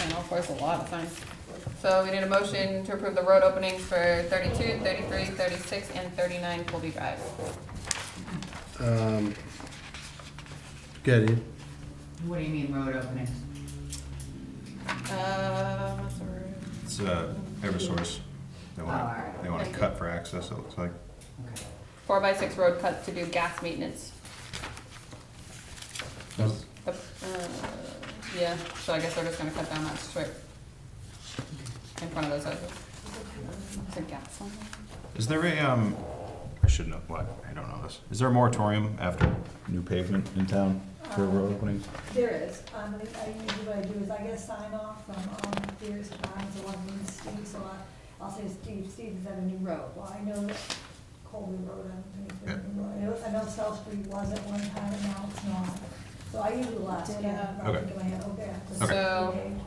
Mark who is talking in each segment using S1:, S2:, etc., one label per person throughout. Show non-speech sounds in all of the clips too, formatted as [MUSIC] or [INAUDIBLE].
S1: for us a lot of times. So we need a motion to approve the road openings for 32, 33, 36, and thirty-nine Colby Drive.
S2: Um, Get it?
S3: What do you mean road openings?
S1: Uh, what's the road?
S4: It's uh, Eversource. They want,
S3: Alright.
S4: they want to cut for access, it looks like.
S3: Okay.
S1: Four by six road cuts to do gas maintenance. The- uh, Yeah, so I guess they're just gonna cut down that strip in front of those houses. Is there gas on there?
S4: Is there a, um, I should know, what, I don't know this. Is there a moratorium after new pavement in town for road openings?
S5: There is, um, I, I usually what I do is I get a sign off from, um, Dearest Farms along Main Street, so I, I'll say Steve, Steve is at a new road, well, I know Colby Road, I don't think it's a new road, I know, I know South Street was at one time, and now it's not. So I usually last, oh, yeah, I
S4: Okay.
S5: think in my head, okay. that's
S1: Okay.
S5: the
S1: So-
S5: page.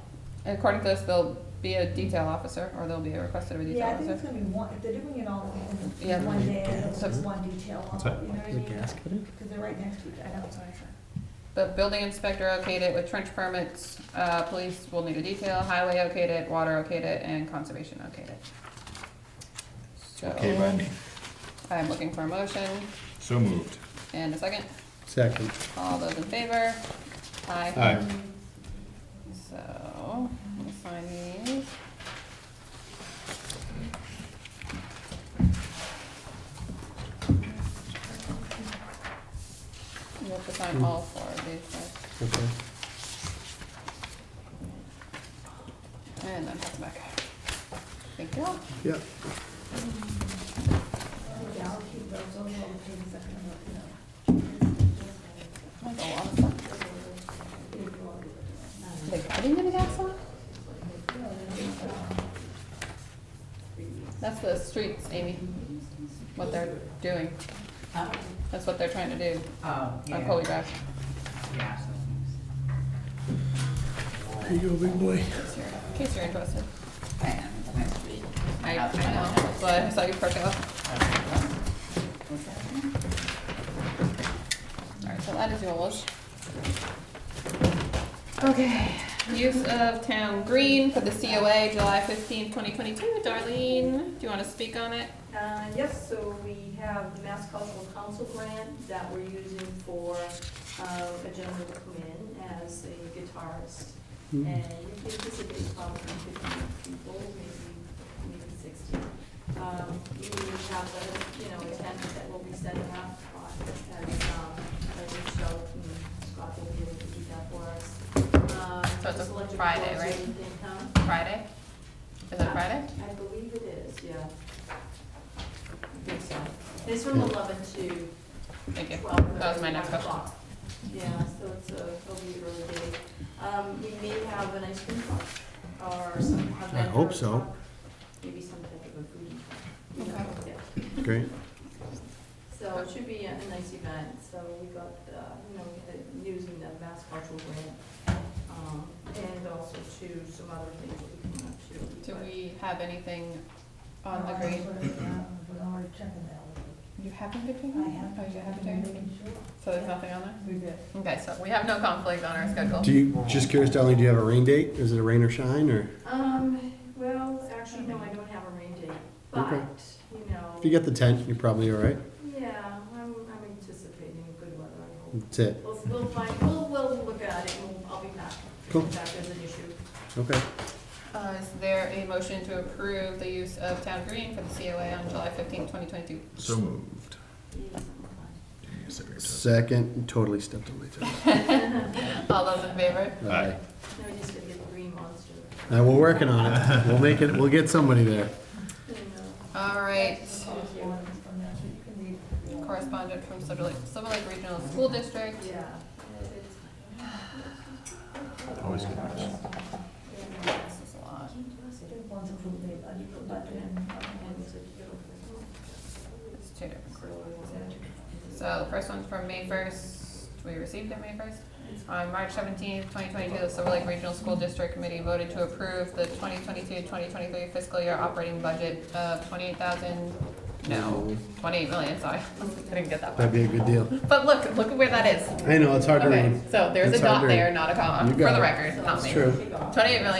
S1: According to this, there'll be a detail officer, or there'll be a request of a detail
S5: Yeah, I think it's
S1: officer.
S5: gonna be one, if they're doing it all in
S1: Yeah.
S5: one day, it's
S1: So-
S5: just one detail off,
S4: What's
S5: you know
S4: that?
S5: what I mean? Cause they're right next to each other, I know, sorry.
S1: The building inspector okayed it with trench permits, uh, police will need a detail, highway okayed it, water okayed it, and conservation okayed it.
S4: Okay, by
S1: So,
S4: me.
S1: I'm looking for a motion,
S4: So moved.
S1: and a second,
S2: Second.
S1: all those in favor? Aye.
S4: Aye.
S1: So, let me sign these. You have to sign all four of these, right?
S2: Okay.
S1: and then pass it back. Thank you.
S2: Yep.
S5: Yeah, I'll keep those, those are all the pages that I'm looking at.
S1: That's a lot of stuff. They cutting the gas off? That's the streets, Amy, what they're doing.
S3: Uh,
S1: That's what they're trying to do
S3: Oh, yeah.
S1: on Colby Drive.
S3: Yeah. so-
S2: Here you go, big boy.
S1: In case you're interested.
S3: I am, it's my street.
S1: I, I know, that's why I saw you perking up. Alright, so that is yours. Okay, use of town green for the COA, July fifteenth, twenty twenty-two. Darlene, do you wanna speak on it?
S6: Uh, Yes, so we have the Mass Cultural Council grant that we're using for uh, a gentleman to come in as a guitarist. And
S2: Mm-hmm.
S6: we anticipate probably fifteen people, maybe, maybe sixteen. Um, We have, a, you know, a tent that will be setting up uh, as um, a new show. and Scott will be able to do that for us. Um,
S1: So it's a
S6: just electric
S1: Friday,
S6: doors,
S1: right?
S6: everything, huh?
S1: Friday? Is it Friday?
S6: I believe it is, yeah. I think so. It's from eleven to
S1: Thank you.
S6: twelve.
S1: That was my next question.
S6: o'clock. Yeah, so it's a, it'll be early day. Um, we may have an ice cream truck or some. a
S2: I hope
S6: vendor
S2: so.
S6: truck, Maybe some type of a food. you know,
S1: Okay.
S6: yeah.
S2: Great.
S6: So it should be a a nice event, so we got, uh, you know, uh, using the Mass Cultural Grant, um, and also to some other things that we can up to.
S1: Do
S6: but-
S1: we have anything on the green?
S5: We're already checking that.
S1: You haven't been doing
S5: I
S1: that?
S5: have.
S1: Oh, you haven't been doing
S5: Making sure.
S1: it? So there's nothing on there?
S5: We're good.
S1: Okay, so we have no conflict on our schedule.
S2: Do you, just curious, Darlene, do you have a rain date? Is it a rain or shine, or
S6: Um, well, actually, no, I don't have a rain date, but,
S2: Okay.
S6: you know,
S2: if you get the tent, you're probably all right?
S6: yeah, I'm, I'm anticipating good weather, I hope.
S2: That's it.
S6: We'll, we'll find, we'll, we'll look at it, and we'll- I'll be back.
S2: Cool.
S6: If that is an issue.
S2: Okay.
S1: Uh, is there a motion to approve the use of town green for the COA on July fifteenth, twenty twenty-two?
S4: So moved.
S6: Yes, I'm
S2: Second, totally stepped on my toes.
S1: All those in favor?
S4: Aye.
S6: fine. No, just to get the green monster,
S2: Now, we're working on it. We'll make it, we'll get somebody there.
S6: you know.
S1: All right,
S5: Those ones from that, so you can read.
S1: correspondent from Silver Lake, Silver Lake Regional School District.
S6: Yeah. It's-
S4: Always good news.
S1: This is a lot.
S5: One's approved, they, uh, you put that in.
S6: And it's a beautiful.
S1: It's two different correspondents. So the first one's from May first, we received it May first. On March seventeenth, twenty twenty-two, the Silver Lake Regional School District Committee voted to approve the 2022-2023 fiscal year operating budget of twenty-eight thousand, no, twenty-eight million, sorry, [LAUGHS] I didn't get that one.
S2: That'd be a good deal.
S1: But look, look at where that is.
S2: I know, it's hard to
S1: Okay,
S2: read.
S1: so there's a
S2: It's hard
S1: dot
S2: to read.
S1: there, not a comma,
S2: You
S1: for
S2: got
S1: the
S2: it.
S1: record, not me.
S2: It's true.
S1: Twenty-eight million